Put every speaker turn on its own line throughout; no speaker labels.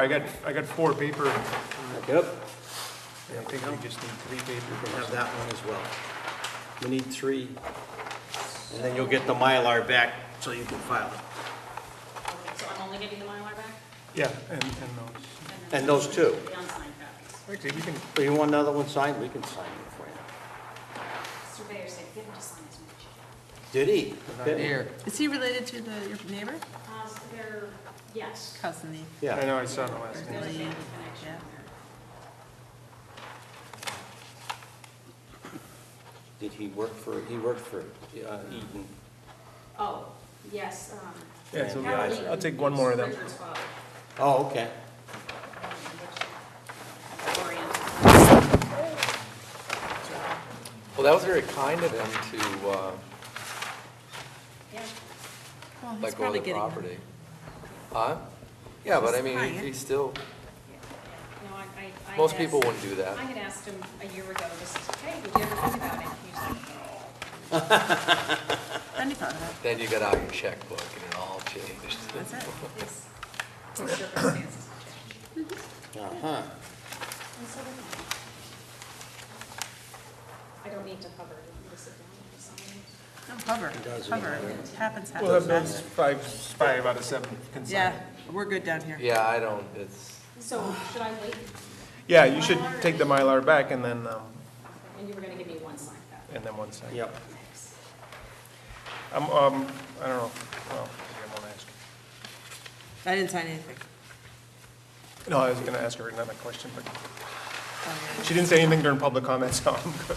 I got, I got four paper.
Yep.
I think we just need three
You
paper.
can have that one as well. We need three, and then you'll get the Mylar back so you can file it.
Okay, so I'm only getting the Mylar back?
Yeah, and, and those.
then-
And those two.
The unsigned copies.
Actually, we can,
But you want another one signed, we can sign it for you.
Surveyor said, give him to sign as much.
Did he? Did he?
Is he related to the, your neighbor?
Uh, so they're, yes,
Cousin,
I
Yeah.
know, I saw the last
there's
name.
a family
Yeah.
connection there.
Did he work for, he worked for uh, Eaton?
Oh, yes, um.
Yeah, so
Yeah,
Howard
I'll take one more of them.
Richard's father. um,
Oh, okay.
uh, Orient.
Well, that was very kind of them to uh,
Yeah,
Well, he's
let go of
probably
the
getting them.
property. Huh? Yeah, but I mean, he-
He's
he still,
no, I, I. I
most
had
people
asked-
wouldn't do that.
I had asked him a year ago, just, hey, did you ever think about it? He's like, "No."
Then he thought about
Then you got out your checkbook and it all changed.
it, that's it.
It's, it's circumstances change.
Uh-huh.
And so do I. I don't need to hover to sit down or something.
No, hover,
doesn't
hover,
matter.
it happens,
We'll have
happens.
those five, five out of seven
Yeah,
consigned.
we're good down here.
Yeah, I don't, it's,
So should I wait?
Yeah, you should take the Mylar back and then, um,
And you were gonna give me one sign back.
and then one second.
Yep.
Thanks.
I'm, um, I don't know, well, maybe I won't ask.
I didn't sign anything.
No, I was gonna ask her another question, but
Oh,
she didn't say anything during public comment, so I'm good.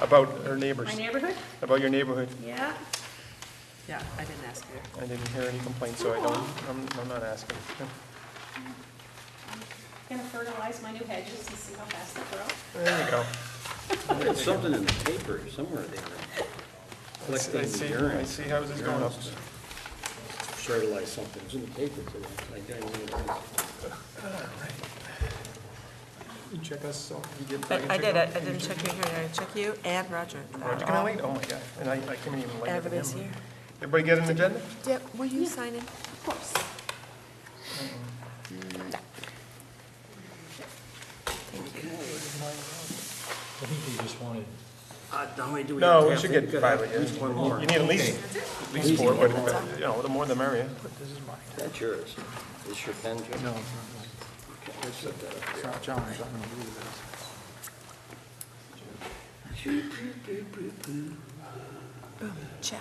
About her neighbors,
My neighborhood?
about your neighborhood.
Yeah.
Yeah, Yeah, I didn't ask you.
I didn't hear any complaints, so I don't, I'm, I'm not asking.
Gonna fertilize my new hedges and see how fast they grow.
There you go.
There's something in the paper somewhere there.
I see, I see- I see how this is going up.
Fertilize something, it's in the paper today. I don't know what it is.
You check us, so you get. can
I
check
did, I
out.
didn't check you here, I checked you and Roger.
Roger, can I wait? Oh my God, and I, I can't even wait for
Everybody's
him.
here.
Everybody get an agenda?
Deb, will you sign in?
Of course.
I think they just wanted,
Uh, How many do we have?
No, we should get
Good.
five,
At least one more.
You need at least, at least four, but, but, you know, the more the merrier.
That's yours. Is your pen, Jim? No. Set that up there.
Check.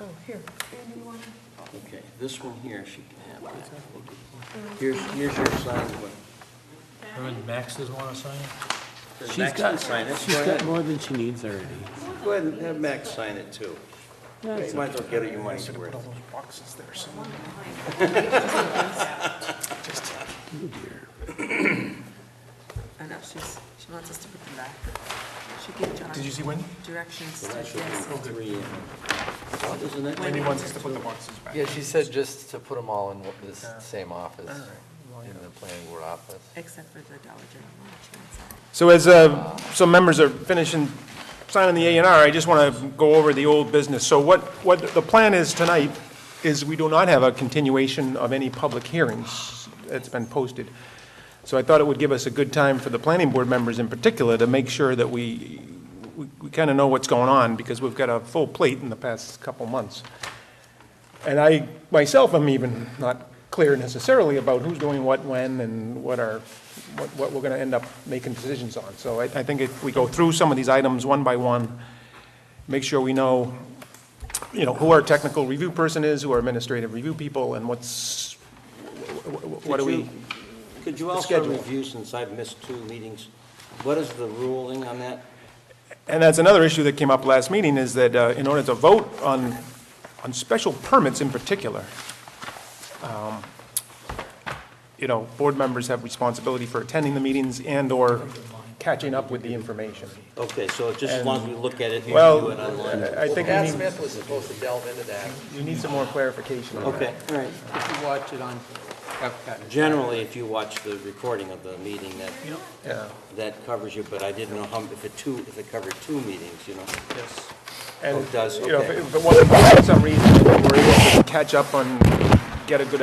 Oh, here.
Okay, this one here, she can have that. Here's, here's your signed one.
Remember Max doesn't want to sign it?
Does Max not sign it? Go
She's got
ahead.
more than she needs already.
Go ahead and have Max sign it too. You might as well get it your money's worth.
Those boxes there, so.
I know, she's, she wants us to put them back. She gave John
Did you see Wendy?
directions
That
to,
should be
yes.
three in. Well, Isn't it?
Wendy wants us to put the boxes back.
yeah, she said just to put them all in this same office, in the planning board office.
Except for the Dollar General one, she wants that.
So as uh, some members are finishing signing the A and R, I just want to go over the old business. So what, what the plan is tonight is we do not have a continuation of any public hearings that's been posted. So I thought it would give us a good time for the planning board members in particular to make sure that we, we- we kind of know what's going on because we've got a full plate in the past couple months. And I, myself, am even not clear necessarily about who's doing what, when, and what are, what, what we're gonna end up making decisions on. So I, I think if we go through some of these items one by one, make sure we know, you know, who our technical review person is, who our administrative review people, and what's, wh- wh- wh- what do
Could
we?
you- Could you also
schedule?
review, since I've missed two meetings, what is the ruling on that?
And that's another issue that came up last meeting, is that uh, in order to vote on, on special permits in particular, um, you know, board members have responsibility for attending the meetings and/or catching up with the information.
Okay, so just as long as we look at it and review
Well,
it online.
I think
Pat
you need,
Smith was supposed to delve into that.
you need some more clarification on that.
Okay, all right.
You watch it on Epcot.
Generally, if you watch the recording of the meeting, that,
Yeah,
that covers you, but I didn't know how, if it two, if it covered two meetings, you know?
yes.
Oh, it does,
And, you know,
okay.
if it- if it wasn't, for some reason, we were able to catch up on, get a good